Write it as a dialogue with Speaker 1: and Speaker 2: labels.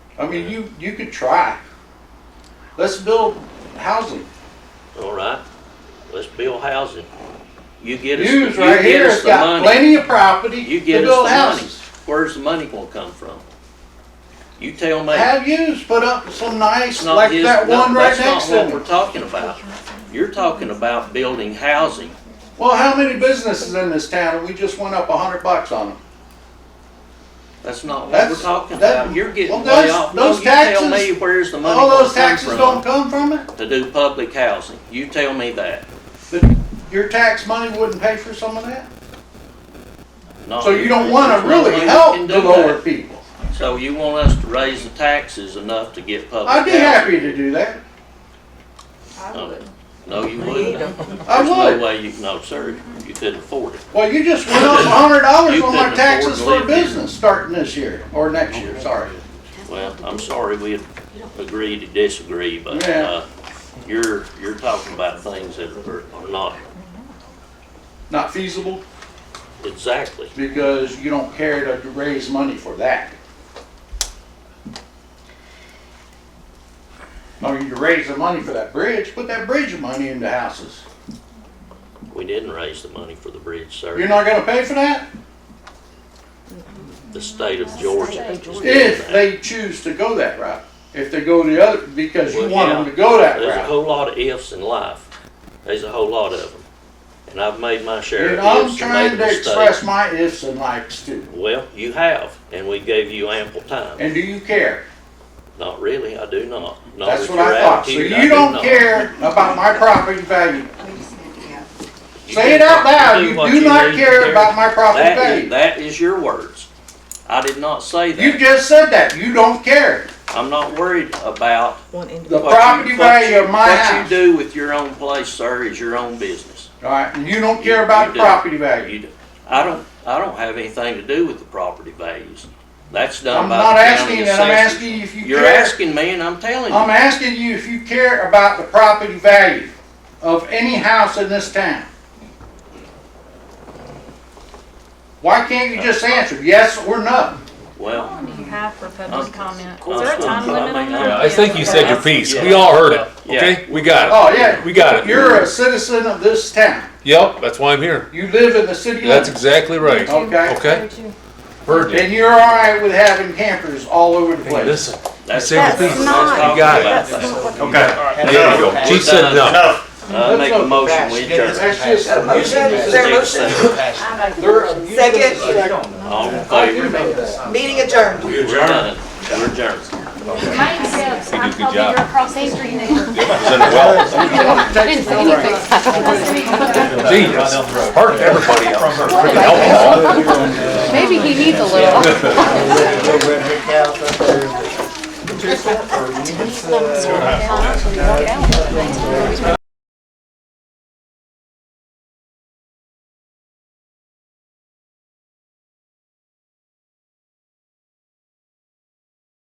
Speaker 1: I mean, you, you could try. Let's build housing.
Speaker 2: All right, let's build housing. You get us, you
Speaker 1: Use right here,
Speaker 2: get us
Speaker 1: it's
Speaker 2: the
Speaker 1: got
Speaker 2: money.
Speaker 1: plenty of property
Speaker 2: You
Speaker 1: to
Speaker 2: get us
Speaker 1: build
Speaker 2: the money.
Speaker 1: houses.
Speaker 2: Where's the money gonna come from? You tell me.
Speaker 1: Have used, put up some nice,
Speaker 2: It's not
Speaker 1: like
Speaker 2: his-
Speaker 1: that
Speaker 2: no,
Speaker 1: one right
Speaker 2: that's not
Speaker 1: next
Speaker 2: what
Speaker 1: to
Speaker 2: We're
Speaker 1: me.
Speaker 2: talking about, you're talking about building housing.
Speaker 1: Well, how many businesses in this town, and we just went up a hundred bucks on them?
Speaker 2: That's not what we're
Speaker 1: That's-
Speaker 2: talking
Speaker 1: that-
Speaker 2: about. You're getting
Speaker 1: well,
Speaker 2: way
Speaker 1: those-
Speaker 2: off. No,
Speaker 1: those
Speaker 2: you tell
Speaker 1: taxes-
Speaker 2: me where's the money
Speaker 1: All
Speaker 2: gonna
Speaker 1: those
Speaker 2: come
Speaker 1: taxes don't
Speaker 2: from
Speaker 1: come from it?
Speaker 2: to do public housing. You tell me that.
Speaker 1: That your tax money wouldn't pay for some of that?
Speaker 2: No,
Speaker 1: So you don't wanna
Speaker 2: there's no way
Speaker 1: really
Speaker 2: we
Speaker 1: help
Speaker 2: can
Speaker 1: the
Speaker 2: do
Speaker 1: lower
Speaker 2: that.
Speaker 1: people.
Speaker 2: So you want us to raise the taxes enough to get public
Speaker 1: I'd
Speaker 2: housing?
Speaker 1: be happy to do that.
Speaker 3: I
Speaker 2: No.
Speaker 3: would.
Speaker 2: No, you wouldn't.
Speaker 1: I
Speaker 2: There's
Speaker 1: would.
Speaker 2: no way you, no, sir, you couldn't afford it.
Speaker 1: Well, you just went up a hundred dollars
Speaker 2: You
Speaker 1: on
Speaker 2: couldn't
Speaker 1: my
Speaker 2: afford
Speaker 1: taxes
Speaker 2: to
Speaker 1: for a
Speaker 2: live here.
Speaker 1: business starting this year, or next year, sorry.
Speaker 2: Well, I'm sorry we agree to disagree, but,
Speaker 1: Yeah.
Speaker 2: uh, you're, you're talking about things that are are not
Speaker 1: Not feasible,
Speaker 2: exactly.
Speaker 1: because you don't care to raise money for that. I mean, you raise the money for that bridge, put that bridge money into houses.
Speaker 2: We didn't raise the money for the bridge,
Speaker 1: You're
Speaker 2: sir.
Speaker 1: not gonna pay for that?
Speaker 2: The state of Georgia. is doing
Speaker 1: If
Speaker 2: that.
Speaker 1: they choose to go that route. If they go the other, because you
Speaker 2: Well,
Speaker 1: want them
Speaker 2: yeah.
Speaker 1: to go that
Speaker 2: There's a
Speaker 1: route.
Speaker 2: whole lot of ifs in life. There's a whole lot of them. And I've made my share
Speaker 1: And
Speaker 2: of
Speaker 1: I'm
Speaker 2: ifs and made
Speaker 1: trying to
Speaker 2: mistakes.
Speaker 1: express my ifs and likes too.
Speaker 2: Well, you have, and we gave you ample time.
Speaker 1: And do you care?
Speaker 2: Not really, I do not. Not
Speaker 1: That's
Speaker 2: with
Speaker 1: what I
Speaker 2: your
Speaker 1: thought. So
Speaker 2: attitude,
Speaker 1: you
Speaker 2: do
Speaker 1: don't
Speaker 2: not.
Speaker 1: care about my property value.
Speaker 2: You
Speaker 1: Say it
Speaker 2: do
Speaker 1: out
Speaker 2: what-
Speaker 1: loud. You
Speaker 2: what
Speaker 1: do not
Speaker 2: need to
Speaker 1: care about my property
Speaker 2: That is,
Speaker 1: value.
Speaker 2: that is your words. I did not say
Speaker 1: You
Speaker 2: that.
Speaker 1: just said that. You don't care.
Speaker 2: I'm not worried about
Speaker 3: One
Speaker 1: The
Speaker 3: individual.
Speaker 2: what you-
Speaker 1: property
Speaker 2: what
Speaker 1: value
Speaker 2: you-
Speaker 1: of my house.
Speaker 2: What you do with your own place, sir, is your own business.
Speaker 1: All right, and you don't
Speaker 2: You-
Speaker 1: care
Speaker 2: you
Speaker 1: about the
Speaker 2: do.
Speaker 1: property value.
Speaker 2: You do. I don't, I don't have anything to do with the property values. That's done
Speaker 1: I'm
Speaker 2: by
Speaker 1: not
Speaker 2: the county
Speaker 1: asking, and I'm
Speaker 2: assessors.
Speaker 1: asking you if you
Speaker 2: You're
Speaker 1: care.
Speaker 2: asking me and I'm telling
Speaker 1: I'm
Speaker 2: you.
Speaker 1: asking you if you care about the property value of any house in this town. Why can't you just answer yes or no?
Speaker 4: How
Speaker 2: Well,
Speaker 4: long do you have for
Speaker 2: Uh,
Speaker 4: public comment?
Speaker 2: uh,
Speaker 4: Is there a time
Speaker 2: uh,
Speaker 4: limit on that?
Speaker 5: Yeah, I think you said your piece. We all heard it. Okay, we got it.
Speaker 1: Oh, yeah.
Speaker 5: We got it.
Speaker 1: You're a citizen of this town.
Speaker 5: Yep, that's why I'm here.
Speaker 1: You live in the city
Speaker 5: That's
Speaker 1: limits,
Speaker 5: exactly right.
Speaker 1: okay?
Speaker 5: Okay, heard you.
Speaker 1: And you're all right with having campers all over the
Speaker 5: Hey,
Speaker 1: place.
Speaker 5: listen,
Speaker 2: that's.
Speaker 5: said
Speaker 2: that's
Speaker 5: your
Speaker 2: what I'm
Speaker 5: piece.
Speaker 3: You
Speaker 2: talking
Speaker 5: got it.
Speaker 2: about.
Speaker 3: That's not what-
Speaker 6: Okay.
Speaker 5: there you go. Chief said no.
Speaker 2: I Uh, make a motion we adjourn.
Speaker 1: That's just.
Speaker 3: Is there a motion? Second,
Speaker 2: All in
Speaker 1: I do know
Speaker 2: favor?
Speaker 1: that.
Speaker 3: meeting adjourned.
Speaker 2: We're done. We're adjourned.
Speaker 4: Mine says, I'm
Speaker 5: did a good
Speaker 4: probably
Speaker 5: job.
Speaker 4: your across the street neighbor.
Speaker 1: You don't want to take the bill right.
Speaker 5: Genius. Heard everybody else. Freaking alcohol.
Speaker 7: Maybe he needs a little.